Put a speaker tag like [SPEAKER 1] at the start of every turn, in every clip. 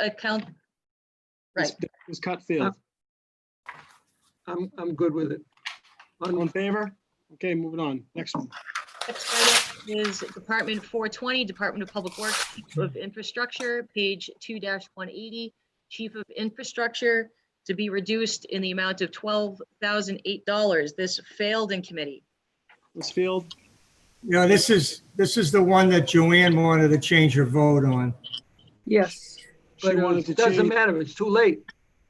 [SPEAKER 1] account. Right.
[SPEAKER 2] Ms. Cutfield,
[SPEAKER 3] Uh, I'm, I'm good with it.
[SPEAKER 2] all in
[SPEAKER 3] On-
[SPEAKER 2] favor? Okay, moving on. Next one.
[SPEAKER 1] Next item Is Department 420, Department of Public Works, Chief of Infrastructure, page 2-180, Chief of Infrastructure to be reduced in the amount of $12,008. This failed in committee.
[SPEAKER 2] Ms. Field,
[SPEAKER 4] No, this is, this is the one that Joanne wanted to change her vote on.
[SPEAKER 5] Yes.
[SPEAKER 2] she
[SPEAKER 3] But uh,
[SPEAKER 2] wanted to
[SPEAKER 3] it doesn't
[SPEAKER 2] change.
[SPEAKER 3] matter, it's too late.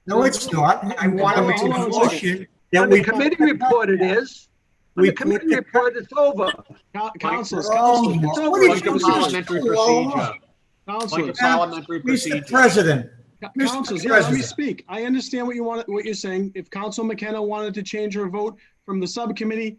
[SPEAKER 4] No, it's not. I want to make a
[SPEAKER 2] Hold on a second.
[SPEAKER 4] motion that
[SPEAKER 3] On the
[SPEAKER 4] we.
[SPEAKER 3] committee report it is. On
[SPEAKER 4] We
[SPEAKER 3] the committee
[SPEAKER 4] put the-
[SPEAKER 3] report, it's over.
[SPEAKER 2] Coun- Councilors,
[SPEAKER 4] Oh,
[SPEAKER 2] councilors,
[SPEAKER 4] my-
[SPEAKER 3] over.
[SPEAKER 4] what
[SPEAKER 6] Like
[SPEAKER 4] did
[SPEAKER 6] a
[SPEAKER 4] you say?
[SPEAKER 6] parliamentary procedure. Like a
[SPEAKER 2] councilors,
[SPEAKER 6] parliamentary procedure.
[SPEAKER 4] Mr. President, Mr.
[SPEAKER 2] councilors, yeah, let me
[SPEAKER 4] President.
[SPEAKER 2] speak. I understand what you want, what you're saying. If Council McKenna wanted to change her vote from the subcommittee,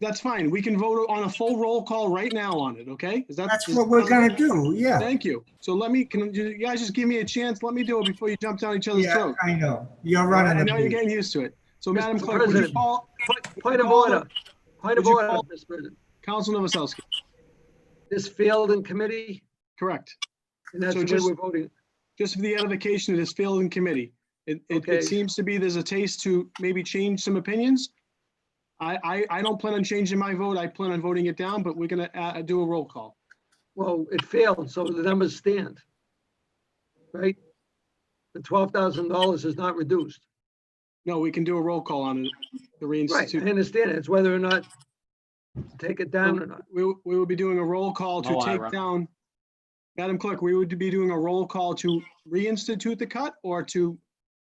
[SPEAKER 2] that's fine. We can vote on a full roll call right now on it, okay? Is that-
[SPEAKER 4] that's
[SPEAKER 2] is-
[SPEAKER 4] what we're gonna do, yeah.
[SPEAKER 2] Thank you. So let me, can you you guys just give me a chance? Let me do it before you jump down each other's
[SPEAKER 4] Yeah,
[SPEAKER 2] throat.
[SPEAKER 4] I know. You're
[SPEAKER 2] I
[SPEAKER 4] running.
[SPEAKER 2] know you're
[SPEAKER 4] the-
[SPEAKER 2] getting used to it. So Madam
[SPEAKER 3] Mr.
[SPEAKER 2] Clerk, would you
[SPEAKER 3] President.
[SPEAKER 2] call
[SPEAKER 3] Point of order, point of
[SPEAKER 2] Would you
[SPEAKER 3] order,
[SPEAKER 2] call-
[SPEAKER 3] Mr. President.
[SPEAKER 2] Council Novoselsky?
[SPEAKER 3] This failed in committee,
[SPEAKER 2] Correct.
[SPEAKER 3] and that's
[SPEAKER 2] So
[SPEAKER 3] the way
[SPEAKER 2] just-
[SPEAKER 3] we're voting.
[SPEAKER 2] just for the edification of this fielding committee. It, it,
[SPEAKER 3] Okay.
[SPEAKER 2] it seems to be there's a taste to maybe change some opinions. I, I, I don't plan on changing my vote. I plan on voting it down, but we're gonna, uh, do a roll call.
[SPEAKER 3] Well, it failed, so the numbers stand. Right? The twelve thousand dollars is not reduced.
[SPEAKER 2] No, we can do a roll call on it, the
[SPEAKER 3] Right, I
[SPEAKER 2] reinstitute.
[SPEAKER 3] understand it. It's whether or not to take it down or not.
[SPEAKER 2] We, we will be doing a roll call to
[SPEAKER 6] No,
[SPEAKER 2] take
[SPEAKER 6] Ira.
[SPEAKER 2] down. Madam Clerk, we would be doing a roll call to reinstitute the cut or to,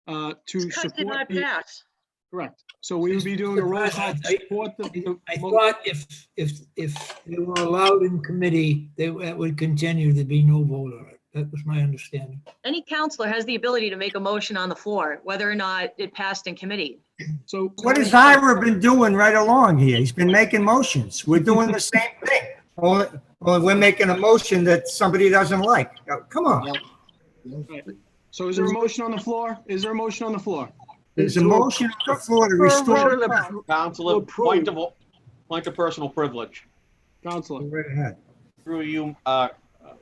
[SPEAKER 2] uh, to
[SPEAKER 1] Cut did
[SPEAKER 2] support
[SPEAKER 1] not
[SPEAKER 2] the,
[SPEAKER 1] pass.
[SPEAKER 2] correct. So we would be doing a roll call to
[SPEAKER 7] I-
[SPEAKER 2] support the- the.
[SPEAKER 7] I
[SPEAKER 2] mo-
[SPEAKER 7] thought if, if, if they were allowed in committee, they, that would continue, there'd be no vote on it. That was my understanding.
[SPEAKER 1] Any counselor has the ability to make a motion on the floor, whether or not it passed in committee.
[SPEAKER 2] So.
[SPEAKER 4] What has Ira been doing right along here? He's been making motions. We're doing the same thing. Only, only we're making a motion that somebody doesn't like. Oh, Come on.
[SPEAKER 2] So is there a motion on the floor? Is there a motion on the floor?
[SPEAKER 4] There's a motion on the floor to
[SPEAKER 3] Motion
[SPEAKER 4] restore.
[SPEAKER 3] to appro-
[SPEAKER 6] Counselor,
[SPEAKER 3] Approve.
[SPEAKER 6] point of, point of personal privilege.
[SPEAKER 2] Counselor,
[SPEAKER 4] Right ahead.
[SPEAKER 6] Through you, uh, uh,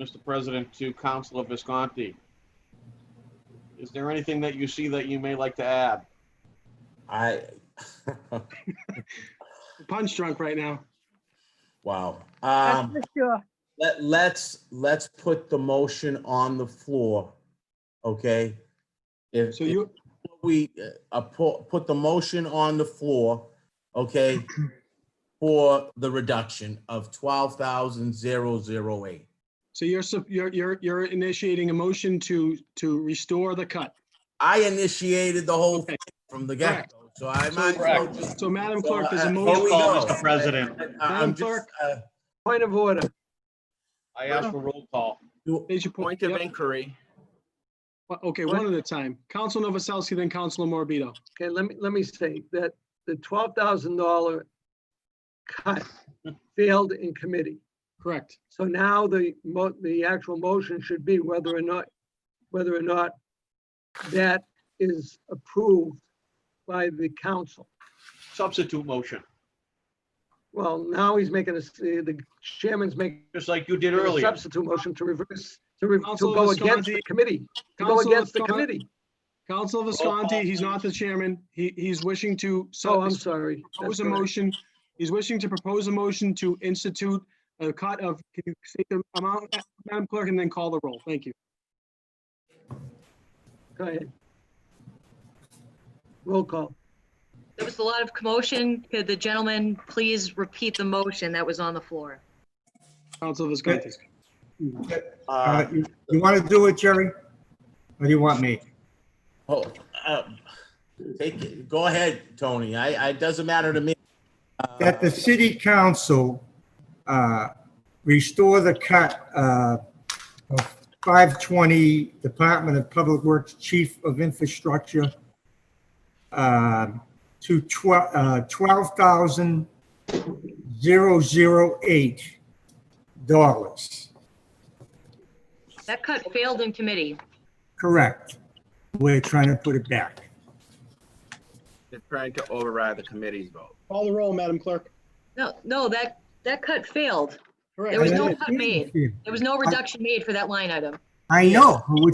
[SPEAKER 6] Mr. President, to Counselor Visconti. Is there anything that you see that you may like to add?
[SPEAKER 8] I,
[SPEAKER 2] punch drunk right now.
[SPEAKER 8] wow.
[SPEAKER 5] That's
[SPEAKER 8] Um,
[SPEAKER 5] for sure.
[SPEAKER 8] let, let's, let's put the motion on the floor, okay? If,
[SPEAKER 2] So
[SPEAKER 8] if
[SPEAKER 2] you,
[SPEAKER 8] we, uh, put, put the motion on the floor, okay? For the reduction of twelve thousand zero zero eight.
[SPEAKER 2] so you're, sup- you're, you're, you're initiating a motion to, to restore the cut.
[SPEAKER 8] I initiated the whole thing from the
[SPEAKER 2] Correct.
[SPEAKER 8] get-go, so I might as well
[SPEAKER 6] Correct.
[SPEAKER 8] just.
[SPEAKER 2] So Madam
[SPEAKER 8] So,
[SPEAKER 2] Clerk, there's
[SPEAKER 8] uh,
[SPEAKER 2] a
[SPEAKER 8] here
[SPEAKER 2] motion.
[SPEAKER 8] we
[SPEAKER 6] Call,
[SPEAKER 8] go.
[SPEAKER 6] Mr. President.
[SPEAKER 8] I- I'm
[SPEAKER 2] Madam Clerk.
[SPEAKER 8] just, uh,
[SPEAKER 3] Point of order.
[SPEAKER 6] I ask for roll call.
[SPEAKER 8] do-
[SPEAKER 2] Major point. Yep. Uh,
[SPEAKER 6] inquiry.
[SPEAKER 2] Okay, one at a time. Council Novoselsky, then Councilor Morbido.
[SPEAKER 3] Okay, let me, let me say that the twelve thousand dollar cut failed in committee.
[SPEAKER 2] Correct.
[SPEAKER 3] So now the mo, the actual motion should be whether or not, whether or not that is approved by the council.
[SPEAKER 6] Substitute motion,
[SPEAKER 3] Well, now he's making a, s- the chairman's making
[SPEAKER 6] just like you did
[SPEAKER 3] a
[SPEAKER 6] earlier.
[SPEAKER 3] substitute motion to reverse, to, re- to
[SPEAKER 2] Councilor
[SPEAKER 3] go against
[SPEAKER 2] Visconti.
[SPEAKER 3] the committee, to go
[SPEAKER 2] Councilor
[SPEAKER 3] against the
[SPEAKER 2] Visconti.
[SPEAKER 3] committee.
[SPEAKER 2] Councilor
[SPEAKER 6] call,
[SPEAKER 2] Visconti, he's not the chairman. He, he's wishing to.
[SPEAKER 7] Oh,
[SPEAKER 3] So Oh, I'm sorry.
[SPEAKER 2] Propose
[SPEAKER 3] That's
[SPEAKER 2] a
[SPEAKER 3] correct.
[SPEAKER 2] motion. He's wishing to propose a motion to institute a cut of, can you state the amount, Madam Clerk, and then call the roll. Thank you.
[SPEAKER 3] Go ahead. Roll call.
[SPEAKER 1] There was a lot of commotion. Could the gentleman please repeat the motion that was on the floor?
[SPEAKER 2] Councilor Visconti.
[SPEAKER 4] Uh,
[SPEAKER 8] uh,
[SPEAKER 4] You you want to do it, Jerry? Or do you want me?
[SPEAKER 8] Oh, um, take it. Go ahead, Tony. I, I, it doesn't matter to me. Uh,
[SPEAKER 4] that the city council uh, restore the cut uh, of 520 Department of Public Works Chief of Infrastructure um, to twel- uh, 12,008 dollars.
[SPEAKER 1] That cut failed in committee.
[SPEAKER 4] Correct. We're trying to put it back.
[SPEAKER 9] They're trying to override the committee's vote.
[SPEAKER 2] Call the roll, Madam Clerk.
[SPEAKER 1] No, no, that, that cut failed.
[SPEAKER 2] Correct.
[SPEAKER 1] There was no cut made. There was no reduction made for that line item.
[SPEAKER 4] I know, but we're